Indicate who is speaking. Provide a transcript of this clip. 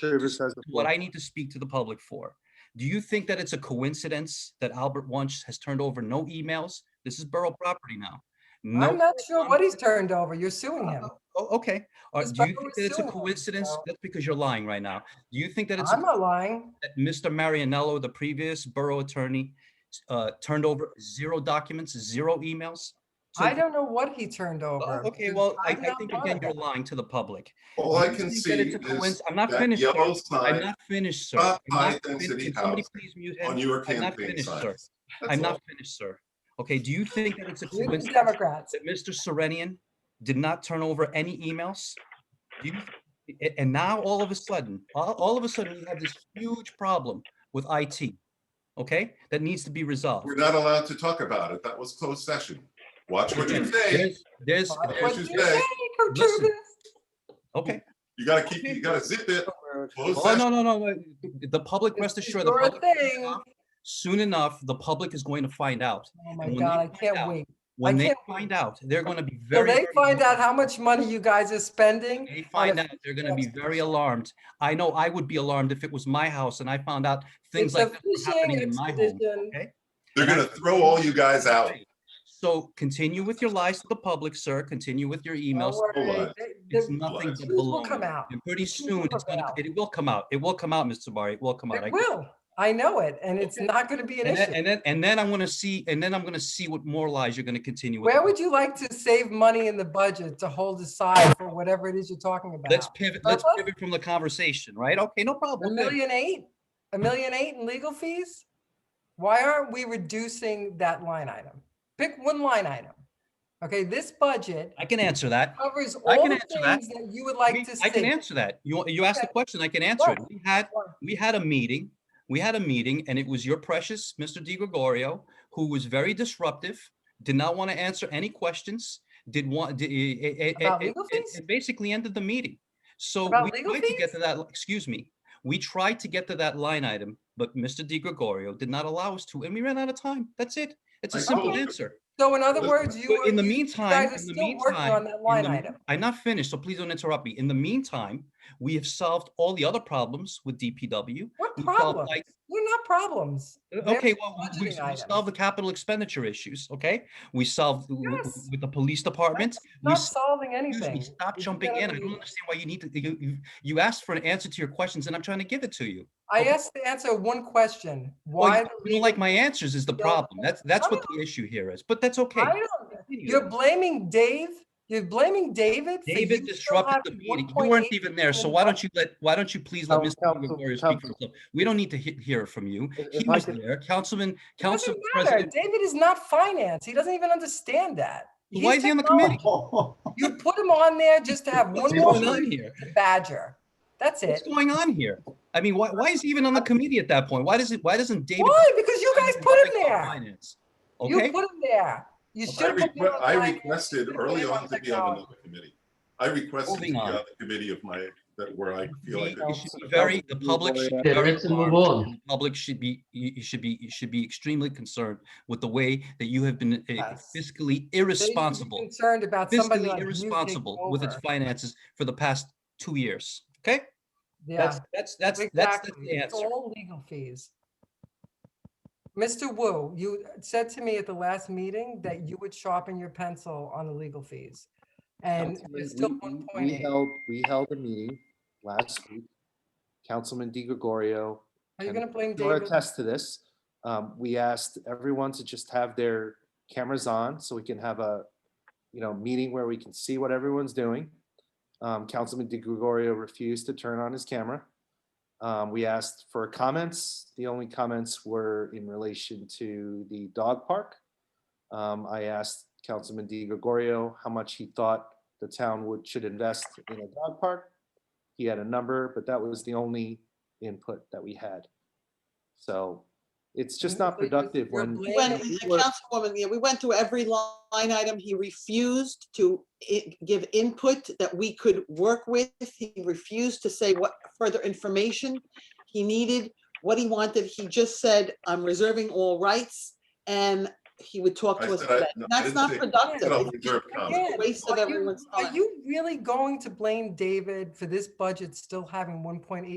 Speaker 1: Davis has the floor.
Speaker 2: what I need to speak to the public for. Do you think that it's a coincidence that Albert Wunsch has turned over no emails? This is borough property now.
Speaker 3: I'm
Speaker 2: No,
Speaker 3: not sure what he's turned over. You're suing him.
Speaker 2: Oh, okay. Or
Speaker 3: This
Speaker 2: do you
Speaker 3: borough
Speaker 2: think
Speaker 3: is
Speaker 2: that it's a
Speaker 3: suing him,
Speaker 2: coincidence?
Speaker 3: so-
Speaker 2: That's because you're lying right now. Do you think that it's a
Speaker 3: I'm not lying.
Speaker 2: that Mr. Marianello, the previous borough attorney, s- uh, turned over zero documents, zero emails? to
Speaker 3: I
Speaker 2: the-
Speaker 3: don't know what he turned
Speaker 2: Oh,
Speaker 3: over.
Speaker 2: Okay,
Speaker 3: because
Speaker 2: well, I,
Speaker 3: I'm
Speaker 2: I
Speaker 3: not
Speaker 2: think
Speaker 3: part
Speaker 2: again,
Speaker 3: of
Speaker 2: you're
Speaker 3: it.
Speaker 2: lying to the public.
Speaker 4: All I
Speaker 2: You
Speaker 4: can
Speaker 2: think
Speaker 4: see
Speaker 2: that it's a coinci-
Speaker 4: is
Speaker 2: I'm not
Speaker 4: that
Speaker 2: finished, sir.
Speaker 4: yellow
Speaker 2: I'm
Speaker 4: sign
Speaker 2: not finished, sir.
Speaker 4: Stop
Speaker 2: I'm not
Speaker 4: high-density
Speaker 2: finished. Can Somebody
Speaker 4: housing
Speaker 2: please mute
Speaker 4: on
Speaker 2: him.
Speaker 4: your
Speaker 2: I'm not
Speaker 4: campaign
Speaker 2: finished, sir.
Speaker 4: signs. That's
Speaker 2: I'm not
Speaker 4: all.
Speaker 2: finished, sir. Okay, do you think that it's a
Speaker 3: You're the
Speaker 2: coincidence
Speaker 3: Democrats.
Speaker 2: that Mr. Serenian did not turn over any emails? Do you- a- And now all of a sudden, all, all of a sudden, we have this huge problem with IT, okay? That needs to be resolved.
Speaker 4: We're not allowed to talk about it. That was closed session. Watch what you
Speaker 2: Again,
Speaker 4: say.
Speaker 2: There's, there's,
Speaker 3: What
Speaker 4: There's
Speaker 3: do
Speaker 4: your
Speaker 3: you
Speaker 4: say.
Speaker 3: say,
Speaker 2: Listen.
Speaker 3: Kotruvis?
Speaker 2: okay.
Speaker 4: You gotta keep, you gotta zip it. Closed
Speaker 2: Oh, no,
Speaker 4: session.
Speaker 2: no, no, no. The public, rest
Speaker 3: This is
Speaker 2: assured, the
Speaker 3: your
Speaker 2: public,
Speaker 3: thing.
Speaker 2: soon enough, the public is going to find out.
Speaker 3: Oh my
Speaker 2: when they
Speaker 3: God, I
Speaker 2: find
Speaker 3: can't
Speaker 2: out,
Speaker 3: wait.
Speaker 2: When they
Speaker 3: can't wait.
Speaker 2: find out, they're going to be
Speaker 3: So
Speaker 2: very.
Speaker 3: they
Speaker 2: very
Speaker 3: find out
Speaker 2: alarmed.
Speaker 3: how much money you guys are spending.
Speaker 2: They
Speaker 3: on
Speaker 2: find
Speaker 3: a-
Speaker 2: out, they're going to be very alarmed. I know I would be alarmed if it was my house and I found out things
Speaker 3: It's
Speaker 2: like
Speaker 3: a
Speaker 2: that were happening
Speaker 3: fishing
Speaker 2: in my home.
Speaker 3: expedition.
Speaker 4: They're gonna throw all you guys out.
Speaker 2: So continue with your lies to the public, sir. Continue with your
Speaker 3: Don't
Speaker 2: emails.
Speaker 3: worry.
Speaker 4: Hold on.
Speaker 3: They-
Speaker 2: It's
Speaker 3: they-
Speaker 2: nothing
Speaker 4: lies.
Speaker 2: but
Speaker 3: Truth will come
Speaker 2: baloney.
Speaker 3: out.
Speaker 2: And pretty
Speaker 3: Truth
Speaker 2: soon,
Speaker 3: will
Speaker 2: it's
Speaker 3: come
Speaker 2: gonna,
Speaker 3: out.
Speaker 2: it will come out. It will come out, Mr. Barry. It will come out. I
Speaker 3: It
Speaker 2: guarantee
Speaker 3: will. I know it, and it's not going to be an
Speaker 2: And then,
Speaker 3: issue.
Speaker 2: and then, and then I'm gonna see, and then I'm gonna see what more lies you're gonna continue with.
Speaker 3: Where would you like to save money in the budget to hold aside for whatever it is you're talking
Speaker 2: Let's
Speaker 3: about?
Speaker 2: pivot, let's
Speaker 3: Bubba?
Speaker 2: pivot from the conversation, right? Okay, no
Speaker 3: A
Speaker 2: problem. we'll pivot.
Speaker 3: million eight? A million eight in legal fees? Why aren't we reducing that line item? Pick one line item. Okay, this budget
Speaker 2: I can answer that.
Speaker 3: covers
Speaker 2: I
Speaker 3: all
Speaker 2: can
Speaker 3: the
Speaker 2: answer that.
Speaker 3: things that you would
Speaker 2: I
Speaker 3: like
Speaker 2: mean,
Speaker 3: to
Speaker 2: I can
Speaker 3: see.
Speaker 2: answer that. You, you asked the
Speaker 3: Okay.
Speaker 2: question, I can answer it.
Speaker 3: Right.
Speaker 2: We had,
Speaker 3: Why?
Speaker 2: we had a meeting, we had a meeting, and it was your precious Mr. Di Gregorio, who was very disruptive, did not want to answer any questions, did want, did, it,
Speaker 3: About legal fees?
Speaker 2: basically ended the meeting. So
Speaker 3: About
Speaker 2: we
Speaker 3: legal
Speaker 2: tried to get
Speaker 3: fees?
Speaker 2: to that, li- excuse me, we tried to get to that line item, but Mr. Di Gregorio did not allow us to, and we ran out of time. That's it. It's a
Speaker 4: I
Speaker 2: simple
Speaker 4: told you.
Speaker 2: answer.
Speaker 3: So in other
Speaker 4: Listen,
Speaker 3: words, you
Speaker 2: But
Speaker 3: are,
Speaker 2: in the
Speaker 3: you
Speaker 2: meantime,
Speaker 3: guys are
Speaker 2: in the
Speaker 3: still working
Speaker 2: meantime,
Speaker 3: on that
Speaker 2: in
Speaker 3: line
Speaker 2: the
Speaker 3: item.
Speaker 2: mean- I'm not finished, so please don't interrupt me. In the meantime, we have solved all the other problems with DPW.
Speaker 3: What
Speaker 2: We solved,
Speaker 3: problem?
Speaker 2: like-
Speaker 3: We're not problems. They're
Speaker 2: Okay, well, we- we
Speaker 3: budgeting
Speaker 2: we
Speaker 3: items.
Speaker 2: solved the capital expenditure issues, okay? We solved w- w-
Speaker 3: Yes.
Speaker 2: with the police department. We
Speaker 3: Not
Speaker 2: s-
Speaker 3: solving
Speaker 2: excuse
Speaker 3: anything.
Speaker 2: me, Stop
Speaker 3: It's
Speaker 2: jumping
Speaker 3: gonna
Speaker 2: in. I
Speaker 3: be-
Speaker 2: don't understand why you need to, you- you, you asked for an answer to your questions and I'm trying to give it to you.
Speaker 3: I
Speaker 2: Okay.
Speaker 3: asked to answer one question.
Speaker 2: Well,
Speaker 3: Why?
Speaker 2: you-
Speaker 3: the
Speaker 2: You don't like my answers is the
Speaker 3: No,
Speaker 2: problem. That's, that's
Speaker 3: I
Speaker 2: what the issue here is, but that's okay.
Speaker 3: I don't,
Speaker 2: Continue.
Speaker 3: you're blaming Dave? You're blaming David? for
Speaker 2: David
Speaker 3: you still
Speaker 2: disrupted the
Speaker 3: having
Speaker 2: meeting. You
Speaker 3: 1.8
Speaker 2: weren't even there, so
Speaker 3: million
Speaker 2: why don't you let, why don't you please let
Speaker 1: Coun-
Speaker 2: Mr.
Speaker 1: Council-
Speaker 2: Gregorio speak for
Speaker 1: Council-
Speaker 2: himself? We don't need to he- hear it from you.
Speaker 1: If-
Speaker 2: He
Speaker 1: if I
Speaker 2: was
Speaker 1: could-
Speaker 2: there, Councilman,
Speaker 3: dollars?
Speaker 2: Council
Speaker 3: Doesn't matter.
Speaker 2: President.
Speaker 3: David is not finance. He doesn't even understand that.
Speaker 2: Why
Speaker 3: He's Oh,
Speaker 2: is he on the committee?
Speaker 3: technology. You put him on there just to have
Speaker 2: What's
Speaker 3: one more
Speaker 2: going on here?
Speaker 3: badger. That's
Speaker 2: What's
Speaker 3: it.
Speaker 2: going on here? I mean, why, why is he even on the committee at that point? Why does it, why doesn't David?
Speaker 3: Why? Because you guys put him
Speaker 2: Nothing about
Speaker 3: there.
Speaker 2: finance,
Speaker 3: You
Speaker 2: Okay,
Speaker 3: put him there. You
Speaker 4: I
Speaker 3: should have.
Speaker 4: requ- I requested early on to be on another committee. I requested to
Speaker 2: Moving
Speaker 4: be
Speaker 2: on.
Speaker 4: on the committee of my, that where I feel like.
Speaker 2: We- you should be very, the public should be
Speaker 5: Yeah,
Speaker 2: very
Speaker 5: let's move
Speaker 2: alarmed.
Speaker 5: on.
Speaker 2: The Public should be, you you should be, you should be extremely concerned with the way that you have been uh,
Speaker 3: Yes.
Speaker 2: fiscally irresponsible.
Speaker 3: Concerned about somebody
Speaker 2: fiscally
Speaker 3: like you taking
Speaker 2: irresponsible with its
Speaker 3: over.
Speaker 2: finances for the past two years. Okay,
Speaker 3: Yeah.
Speaker 2: that's that's that's that's,
Speaker 3: Exactly.
Speaker 2: that's the
Speaker 3: It's
Speaker 2: answer.
Speaker 3: all legal fees. Mr. Wu, you said to me at the last meeting that you would sharpen your pencil on the legal fees. And
Speaker 1: Councilman,
Speaker 3: there's still
Speaker 1: we-
Speaker 3: one
Speaker 1: we-
Speaker 3: point
Speaker 1: We
Speaker 3: eight.
Speaker 1: held, we held a meeting last week. Councilman Di Gregorio,
Speaker 3: Are you
Speaker 1: and
Speaker 3: gonna blame
Speaker 1: you're
Speaker 3: David?
Speaker 1: attest to this. Um, we asked everyone to just have their cameras on so we can have a, you know, meeting where we can see what everyone's doing. Um, Councilman Di Gregorio refused to turn on his camera. Um, we asked for comments. The only comments were in relation to the dog park. Um, I asked Councilman Di Gregorio how much he thought the town would, should invest in a dog park. He had a number, but that was the only input that we had. So it's just not
Speaker 3: You're- you're
Speaker 1: productive when.
Speaker 3: blaming-
Speaker 6: We went,
Speaker 3: Lane,
Speaker 6: we-
Speaker 1: were-
Speaker 6: the Councilwoman, yeah, we went through every line item. He refused to i- give input that we could work with. He refused to say what further information he needed, what he wanted. He just said, I'm reserving all rights, and he would talk
Speaker 4: I
Speaker 6: to us.
Speaker 4: said I-
Speaker 6: about it.
Speaker 4: no, I
Speaker 6: That's
Speaker 4: didn't
Speaker 6: not
Speaker 4: say-
Speaker 6: productive.
Speaker 4: I'll
Speaker 6: It's
Speaker 4: reserve
Speaker 6: a
Speaker 4: comment.
Speaker 3: Again,
Speaker 6: Waste
Speaker 3: are
Speaker 6: of
Speaker 3: you-
Speaker 6: everyone's
Speaker 3: Are
Speaker 6: time.
Speaker 3: you really going to blame David for this budget still having one point eight